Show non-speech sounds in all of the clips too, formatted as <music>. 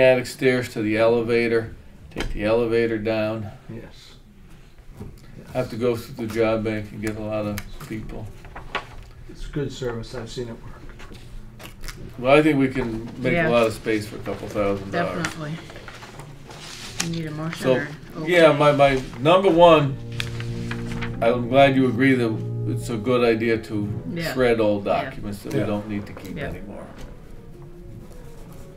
attic stairs to the elevator, take the elevator down. Yes. I have to go through the job bank and get a lot of people. It's good service. I've seen it work. Well, I think we can make Yeah. a lot of space for a couple thousand dollars. Definitely. You need a motion So, or? Yeah, okay. my, my, number one, I'm glad you agree that it's a good idea to Yeah. shred old Yeah. documents that we Yeah. don't need to keep Yeah. anymore.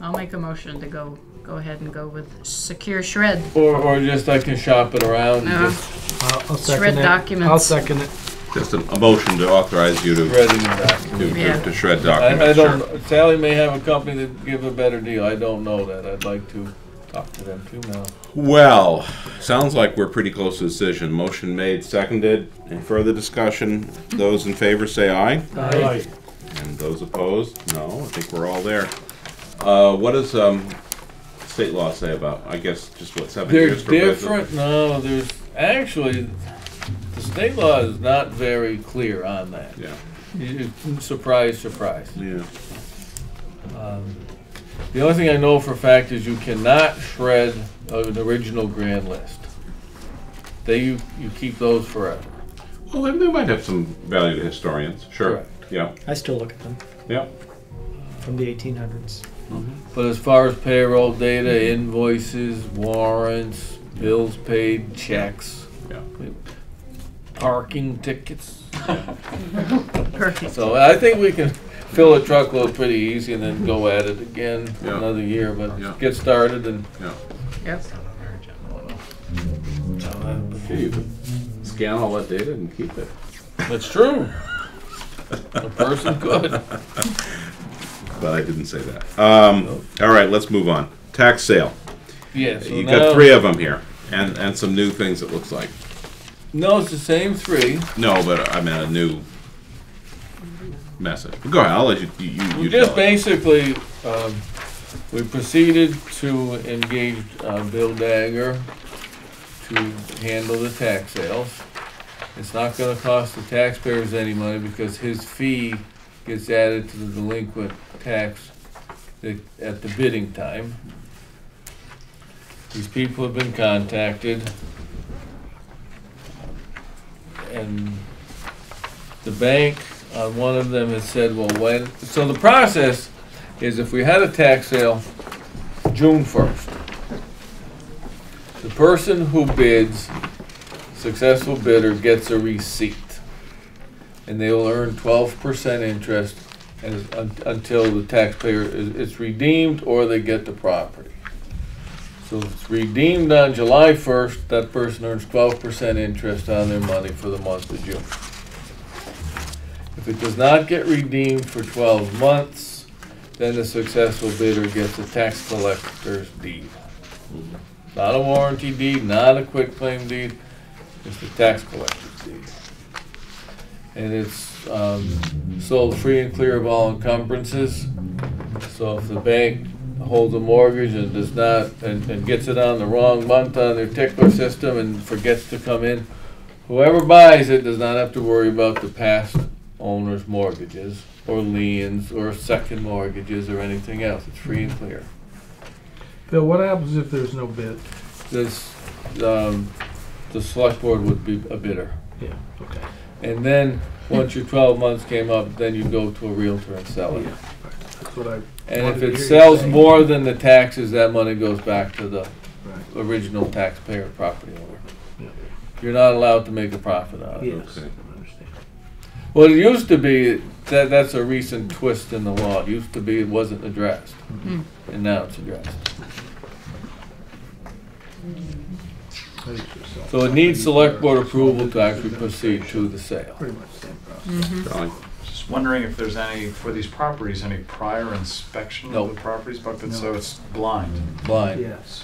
I'll make a motion to go, go ahead and go with secure shred. Or, or just I can shop it around and Uh-huh. just I'll, I'll second Shred it. documents. I'll second it. Just a a motion to authorize you to, shredding the documents. to- Yeah. to to shred I, I documents, sure. don't, Sally may have a company that give a better deal, I don't know that, I'd like to talk to them too now. Well, sounds like we're pretty close to a decision. Motion made, seconded. Any further discussion? Those in favor say aye. Aye. And those opposed? No, I think we're all there. Uh, what does, um, state law say about, I guess, just what, seven They're years for business? different, no, there's, actually, the state law is not very clear on that. Yeah, You- you- Surprise, surprise. yeah. Um, The only thing I know for a fact is you cannot shred an original grand list. They, you, you keep those forever. Well, they- they might have some value to historians, sure. Correct. Yeah, I still look at them yeah. from the 1800s. But as far as payroll data, invoices, warrants, bills paid, checks. Yeah. Parking tickets. Perfect. So I think we can fill a truckload pretty easy and then go at it again Yeah. another year, Yeah. but get started and. Yep. Oh, Okay, you can Scan all that data and keep it. That's <laughs> true. A person could. But I didn't say that. Um, all right, let's move on. Tax sale. Yeah, so You now- got three of them here, and, and some new things it looks like. No, it's the same three. No, but I meant a new message. Go ahead, I'll let you, you, you- you We just tell it. basically, um, we proceeded to engage uh, Bill Dagger to handle the tax sales. It's not gonna cost the taxpayers any money because his fee gets added to the delinquent tax that- at the bidding time. These people have been contacted. And the bank on one of them has said, well, when, so the process is if we had a tax sale June first, the person who bids, successful bidder gets a receipt. And they will earn twelve percent interest as, un- until the taxpayer, is it's redeemed or they get the property. So if it's redeemed on July first, that person earns twelve percent interest on their money for the month of June. If it does not get redeemed for twelve months, then the successful bidder gets a tax collector's deed. Not a warranty deed, not a quitclaim deed, it's the tax collector's deed. And it's, um, sold free and clear of all encumbrances. So if the bank holds a mortgage and does not, and, and gets it on the wrong month on their tickler system and forgets to come in, Whoever buys it does not have to worry about the past owner's mortgages or liens or second mortgages or anything else. It's free Mm-hmm. and clear. Bill, what happens if there's no bid? This, um, the select board would be a bidder. Yeah. Okay. And then, once your twelve months came up, then you go to a realtor and sell it. Oh, Yeah. That's what I. And wanted if to hear it you sells say. more than the taxes, that money goes back to the Right. original taxpayer property owner. Yeah. You're not allowed to make a profit on it. Yes. Okay. I understand. Well, it used to be that that's a recent twist in the law. It used to be it wasn't addressed, Mm-hmm. Hmm. and now it's addressed. That is yourself. So it needs select board approval to actually proceed to the sale. Pretty much the same process. Darling. Just wondering if there's any, for these properties, any prior inspection No. of the properties, Buckland, so No. it's blind? Mm. Blind. Yes.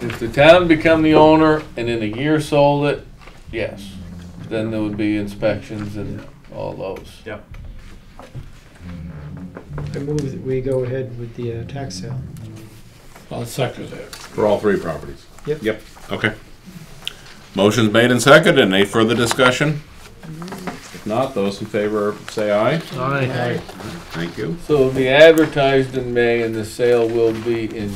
If the town become the owner and in a year sold it, yes, then there would be inspections and all those. Yep. I move that we go ahead with the uh, tax sale. I'll second that. For all three properties? Yep. Yep, okay. Motion's made and seconded. Any further discussion? If not, those in favor say aye. Aye. Thank you. So it'll be advertised in May and the sale will be in